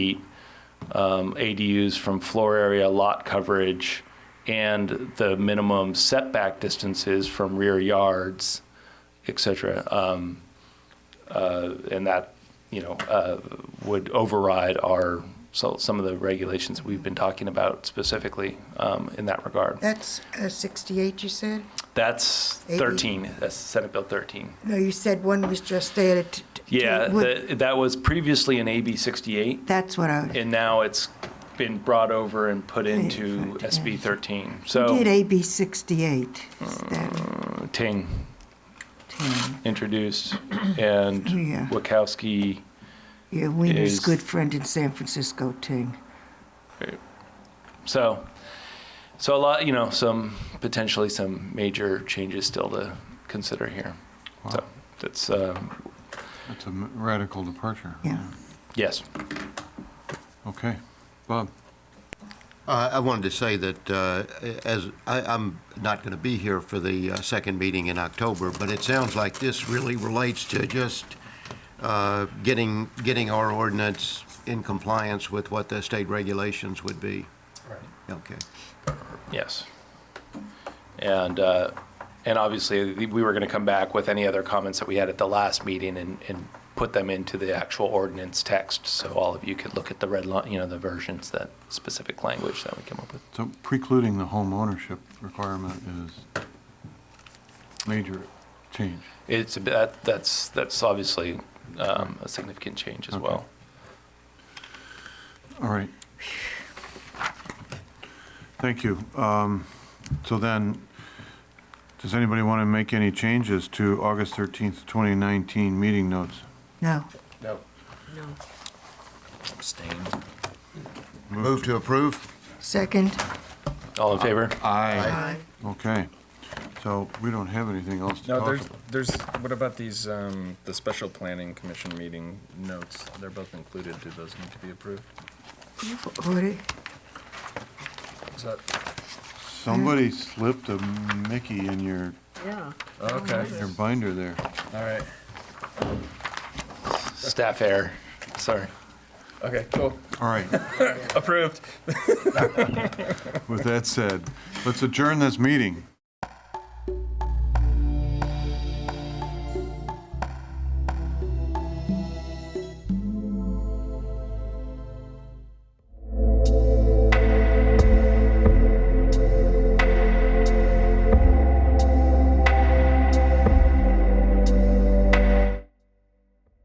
feet, um, ADUs from floor area, lot coverage, and the minimum setback distances from rear yards, et cetera. Um, uh, And that, you know, uh, would override our, so- some of the regulations that we've been talking about specifically um, in that regard. That's uh, 68, you said? That's AD. 13, that's Senate Bill 13. No, you said one was just added. t- t- Yeah, would- that that was previously an AB 68. That's what I, and now it's been brought over and put into Yeah. SB 13. you did So AB 68, is that Ting 10? introduced, and Oh, Yeah. Wachowski, Yeah, Wiener's Is- good friend in San Francisco, Ting. so, so a lot, you know, some, potentially some major changes still to consider here. So Wow. that's, um, That's a m- radical departure. Yeah. yes. Okay. Bob, Uh, I wanted to say that uh, as, I- I'm not going to be here for the uh, second meeting in October, but it sounds like this really relates to just uh, getting, getting our ordinance in compliance with what the state regulations would be. Right. Okay. Yes. And, uh, and obviously, we were going to come back with any other comments that we had at the last meeting and, and put them into the actual ordinance text, so all of you could look at the red line, you know, the versions, that specific language that we came up with. so precluding the home ownership requirement is major change. It's, a bit- that, that's, that's obviously, um, a significant change as well. Okay. All right. Thank you. Um, So then, does anybody want to make any changes to August 13th, 2019 meeting notes? No, No. Abstain. Move to approve? second? All in favor? Aye. Okay. So we don't have anything else to No, talk there's, about. there's, what about these, um, the special planning commission meeting notes? They're both included. Do those need to be approved? Order- Is that, Somebody slipped a Mickey in your, Yeah. okay, your binder there. all right. Staff error, sorry. Okay, cool. All right. Approved. With that said, let's adjourn this meeting.